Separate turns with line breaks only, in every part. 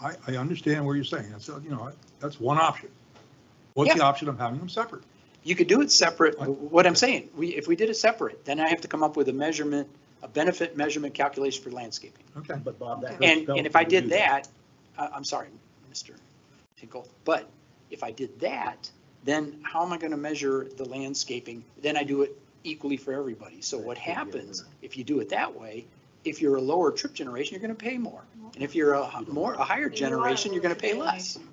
I, I understand where you're saying. That's, uh, you know, that's one option. What's the option of having them separate?
You could do it separate,
I-
what I'm saying, we, if we did it separate, then I have to come up with a measurement, a benefit measurement calculation for landscaping.
Okay.
But Bob, that. goes
And,
back
and if I
to
did
you.
that, I, I'm sorry, Mr. Tinkle, but if I did that, then how am I gonna measure the landscaping? Then I do it equally for everybody. So what happens if you do it that way? If you're a lower trip generation, you're gonna pay more. And if you're a h- more, a higher
You are a
generation, you're gonna
lower
pay less.
generation.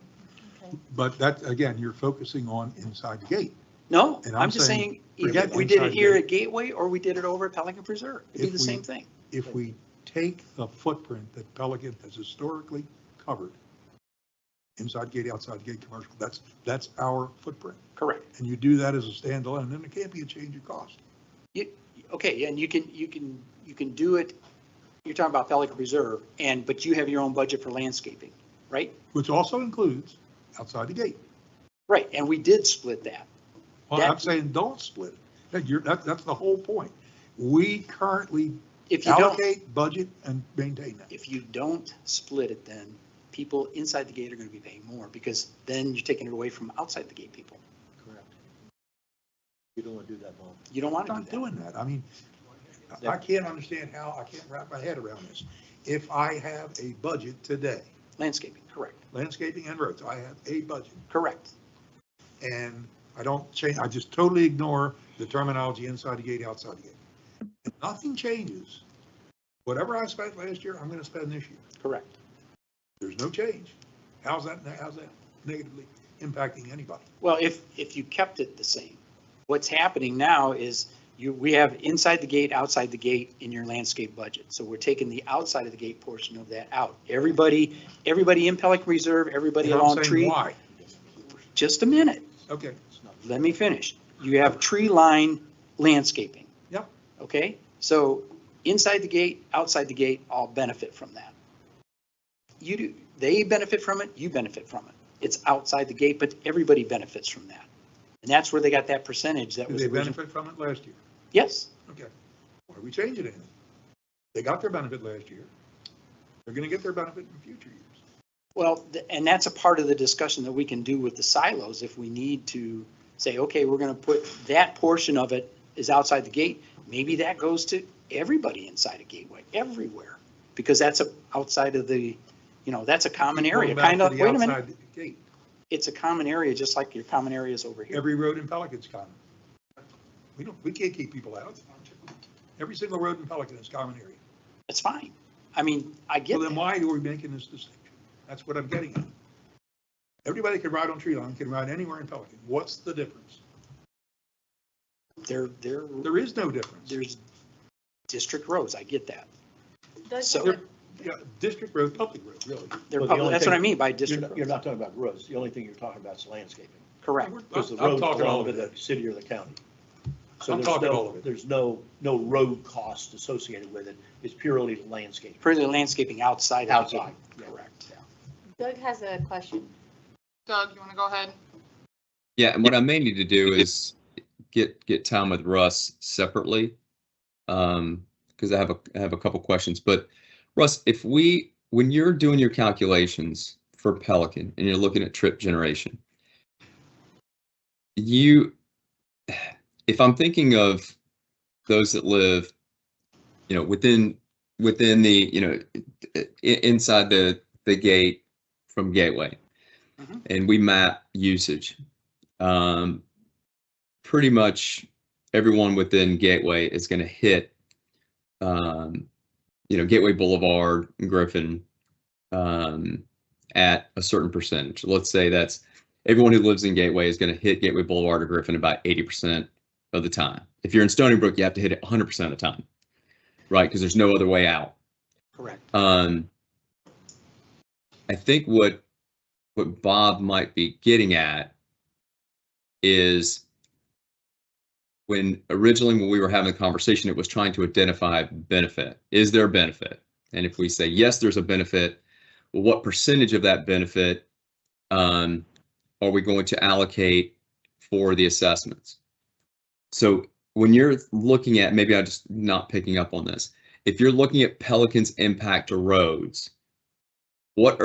But that, again, you're focusing on inside the gate.
No,
And I'm
I'm just
saying,
saying, either
forget
we did it
inside
here
gate.
at Gateway or we did it over at Pelican Preserve. It'd be
If
the
we-
same thing.
If we take the footprint that Pelican has historically covered, inside gate, outside gate, commercial, that's, that's our footprint.
Correct.
And you do that as a standalone, then it can't be a change of cost.
Okay, and you can, you can, you can do it, you're talking about Pelican Reserve, and, but you have your own budget for landscaping, right?
which also includes outside the gate.
Right, and we did split that.
Well, I'm
That-
saying don't split it. That you're, that, that's the whole point. We currently
If you don't,
allocate, budget, and maintain that.
if you don't split it, then people inside the gate are gonna be paying more, because then you're taking it away from outside the gate people.
Correct. You don't want to do that, Bob.
You don't
I'm
want to
not
do that.
doing that. I mean, I- I can't understand how, I can't wrap my head around this. If I have a budget today,
Landscaping, correct,
landscaping and roads, I have a budget,
correct.
and I don't change, I just totally ignore the terminology inside the gate, outside the gate. If Nothing changes. Whatever I spent last year, I'm gonna spend this year.
Correct.
There's no change. How's that, how's that negatively impacting anybody?
Well, if, if you kept it the same, what's happening now is you, we have inside the gate, outside the gate in your landscape budget. So we're taking the outside of the gate portion of that out. Everybody, everybody in Pelican Reserve, everybody
And I'm
along
saying
tree.
Why?
Just a minute,
Okay,
It's not-
let me finish. You have tree line landscaping.
Yep.
Okay, so inside the gate, outside the gate, all benefit from that. You do, they benefit from it, you benefit from it. It's outside the gate, but everybody benefits from that. And that's where they got that percentage that
did
was
they
originally.
benefit from it last year?
Yes,
Okay. Why are we changing anything? They got their benefit last year. They're gonna get their benefit in future years.
well, th- and that's a part of the discussion that we can do with the silos if we need to say, okay, we're going to put that portion of it is outside the gate. Maybe that goes to everybody inside a gateway, everywhere, because that's a outside of the, you know, that's a common area,
Going back
kind
to
of,
the
wait a minute.
outside Gate,
it's a common area, just like your common areas over here.
every road in Pelican's common. We don't, we can't keep people out. Every single road in Pelican is common area.
It's fine. I mean, I get
So then
that.
why are we making this distinction? That's what I'm getting at. Everybody can ride on tree line, can ride anywhere in Pelican. What's the difference?
There, there,
There is no difference.
there's district roads. I get that.
Does
So-
it-
Yeah, District road, public road, really.
They're
Well, the
public,
only
that's what I
thing-
mean by
You're
district
not, you're
roads.
not talking about roads. The only thing you're talking about is landscaping.
Correct.
Because the
I'm
roads
talking all
belong to
of it.
the city or the county. So
I'm
there's
talking
no-
all of it.
There's no, no road cost associated with it. It's purely landscaping.
Purely landscaping outside of the
Outside,
gate.
yeah.
Correct.
Doug has a question.
Doug, you want to go ahead?
Yeah, and what I may need to do is get, get time with Russ separately. Um, because I have a, I have a couple questions, but Russ, if we, when you're doing your calculations for Pelican and you're looking at trip generation, you, if I'm thinking of those that live, you know, within, within the, you know, i- i- inside the, the gate from Gateway,
Mhm.
and we map usage, um, pretty much everyone within Gateway is going to hit, um, you know, Gateway Boulevard, Griffin, um, at a certain percentage. Let's say that's everyone who lives in Gateway is going to hit Gateway Boulevard or Griffin about 80% of the time. If you're in Stony Brook, you have to hit it 100% of the time, right? Because there's no other way out.
Correct.
Um, I think what, what Bob might be getting at is when originally when we were having the conversation, it was trying to identify benefit. Is there a benefit? And if we say, yes, there's a benefit, well, what percentage of that benefit um, are we going to allocate for the assessments? So when you're looking at, maybe I'm just not picking up on this if you're looking at Pelican's impact to roads, what